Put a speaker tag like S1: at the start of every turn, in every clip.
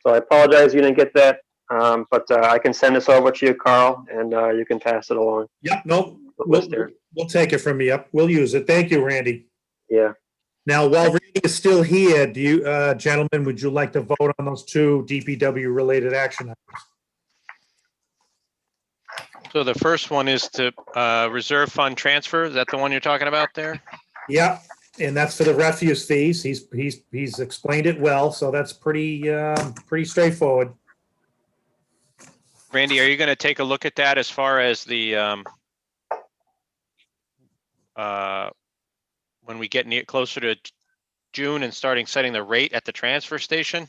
S1: So I apologize you didn't get that, um, but uh, I can send this over to you, Carl, and uh, you can pass it along.
S2: Yep, no,
S1: What
S2: we'll,
S1: was there?
S2: we'll take it from you. Yep, we'll use it. Thank you, Randy.
S1: Yeah.
S2: Now, while Randy is still here, do you, uh, gentlemen, would you like to vote on those two DPW-related action? items?
S3: So the first one is to uh, reserve fund transfer. Is that the one you're talking about there?
S2: Yep, and that's for the refuse fees. He's, he's, he's explained it well, so that's pretty, um, pretty straightforward.
S3: Randy, are you going to take a look at that as far as the um, uh, when we get near closer to June and starting setting the rate at the transfer station?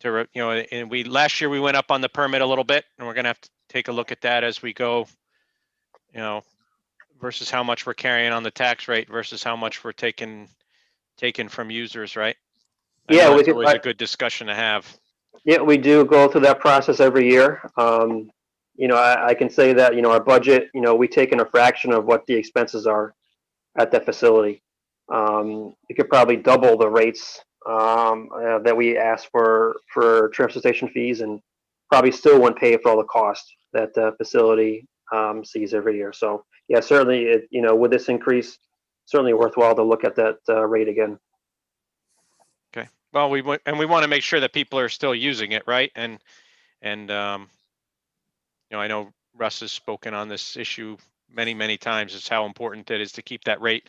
S3: To, re- you know, and we, last year we went up on the permit a little bit and we're going to have to take a look at that as we go. You know, versus how much we're carrying on the tax rate versus how much we're taking, taking from users, right? I know
S1: Yeah, we
S3: that's
S1: could-
S3: Always
S1: I-
S3: a good discussion to have.
S1: Yeah, we do go through that process every year. Um, you know, I, I can say that, you know, our budget, you know, we take in a fraction of what the expenses are at that facility. Um, we could probably double the rates, um, uh, that we ask for, for transfer station fees and probably still wouldn't pay for all the cost that the facility, um, sees every year. So, yeah, certainly, it, you know, with this increase, certainly worthwhile to look at that, uh, rate again.
S3: Well, we want, and we want to make sure that people are still using it, right? And, and, um, you know, I know Russ has spoken on this issue many, many times, is how important it is to keep that rate,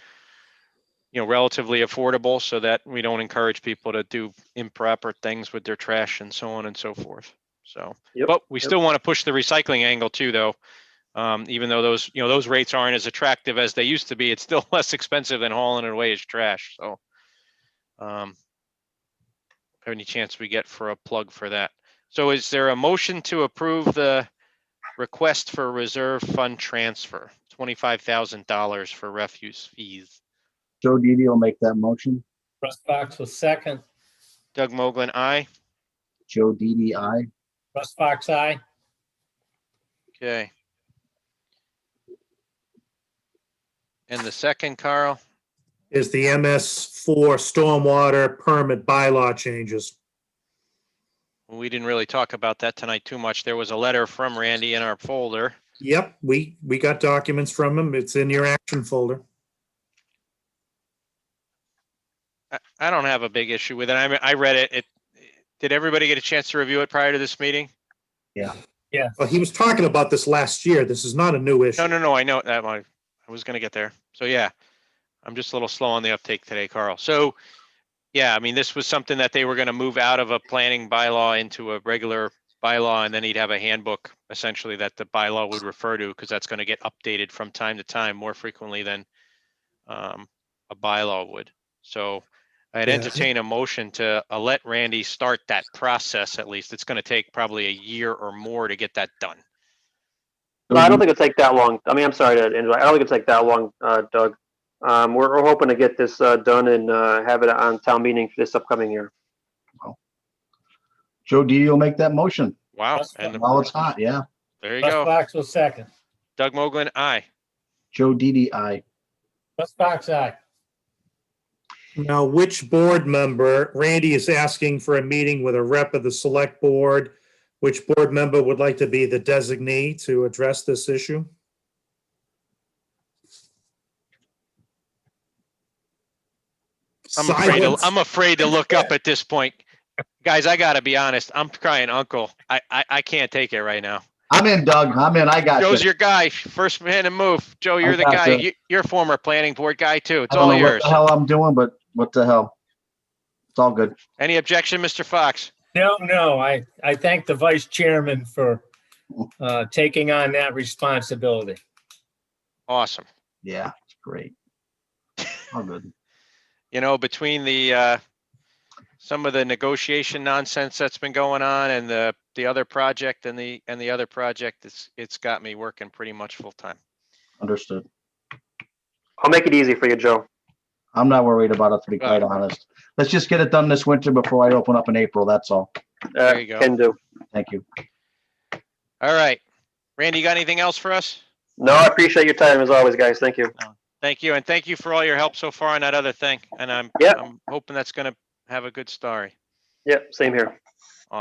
S3: you know, relatively affordable so that we don't encourage people to do improper things with their trash and so on and so forth. So,
S1: Yep,
S3: but we
S1: yep.
S3: still want to push the recycling angle too, though. Um, even though those, you know, those rates aren't as attractive as they used to be, it's still less expensive than hauling it away as trash, so. Um, any chance we get for a plug for that. So is there a motion to approve the request for reserve fund transfer? Twenty-five thousand dollars for refuse fees.
S4: Joe Didi will make that motion.
S5: Russ Fox was second.
S3: Doug Moglen, aye.
S4: Joe Didi, I.
S5: Russ Fox, aye.
S3: Okay. And the second, Carl,
S2: Is the MS for stormwater permit bylaw changes.
S3: we didn't really talk about that tonight too much. There was a letter from Randy in our folder.
S2: Yep, we, we got documents from him. It's in your action folder.
S3: I, I don't have a big issue with it. I mean, I read it. It, did everybody get a chance to review it prior to this meeting?
S2: Well, he was talking about this last year. This is not a new issue.
S3: No, no, no, I know that one. I was gonna get there. So yeah, I'm just a little slow on the uptake today, Carl. So, yeah, I mean, this was something that they were gonna move out of a planning bylaw into a regular bylaw, and then he'd have a handbook essentially that the bylaw would refer to, because that's gonna get updated from time to time more frequently than um, a bylaw would. So I'd
S2: Yeah.
S3: entertain a motion to uh, let Randy start that process at least. It's gonna take probably a year or more to get that done.
S1: No,
S3: Mm-hmm.
S1: I don't think it'll take that long. I mean, I'm sorry to interrupt. I don't think it'll take that long, uh, Doug. Um, we're, we're hoping to get this, uh, done and, uh, have it on town meeting for this upcoming year.
S4: Joe Didi will make that motion
S3: Wow,
S5: That's
S3: and
S4: while it's hot, yeah.
S3: there you
S5: Russ
S3: go.
S5: Fox was second.
S3: Doug Moglen, aye.
S4: Joe Didi, I.
S5: Russ Fox, aye.
S2: Now, which board member, Randy is asking for a meeting with a rep of the select board. Which board member would like to be the designee to address this issue?
S3: I'm afraid, to,
S2: Silence.
S3: I'm afraid to look up at this point. Guys, I gotta be honest, I'm crying uncle. I, I, I can't take it right now.
S4: I'm in, Doug. I'm in. I got
S3: Joe's
S4: you.
S3: your guy, first man to move. Joe, you're the
S4: got
S3: guy,
S4: you.
S3: You- you're a former planning board guy too.
S4: I
S3: It's
S4: don't
S3: all
S4: know what
S3: yours.
S4: the hell I'm doing, but what the hell? It's all good.
S3: Any objection, Mr. Fox?
S5: No, no, I, I thank the vice chairman for uh, taking on that responsibility.
S3: Awesome.
S4: Yeah, it's great. All good.
S3: You know, between the, uh, some of the negotiation nonsense that's been going on and the, the other project and the, and the other project, it's, it's got me working pretty much full time.
S4: Understood.
S1: I'll make it easy for you, Joe.
S4: I'm not worried about it, to be quite honest. Let's just get it done this winter before I open up in April. That's all.
S1: Uh,
S3: There you go.
S1: Can do.
S4: Thank you.
S3: All right. Randy, you got anything else for us?
S1: No, I appreciate your time as always, guys. Thank you.
S3: Thank you, and thank you for all your help so far on that other thing, and I'm,
S1: Yep.
S3: I'm hoping that's gonna have a good story.
S1: Yep, same here.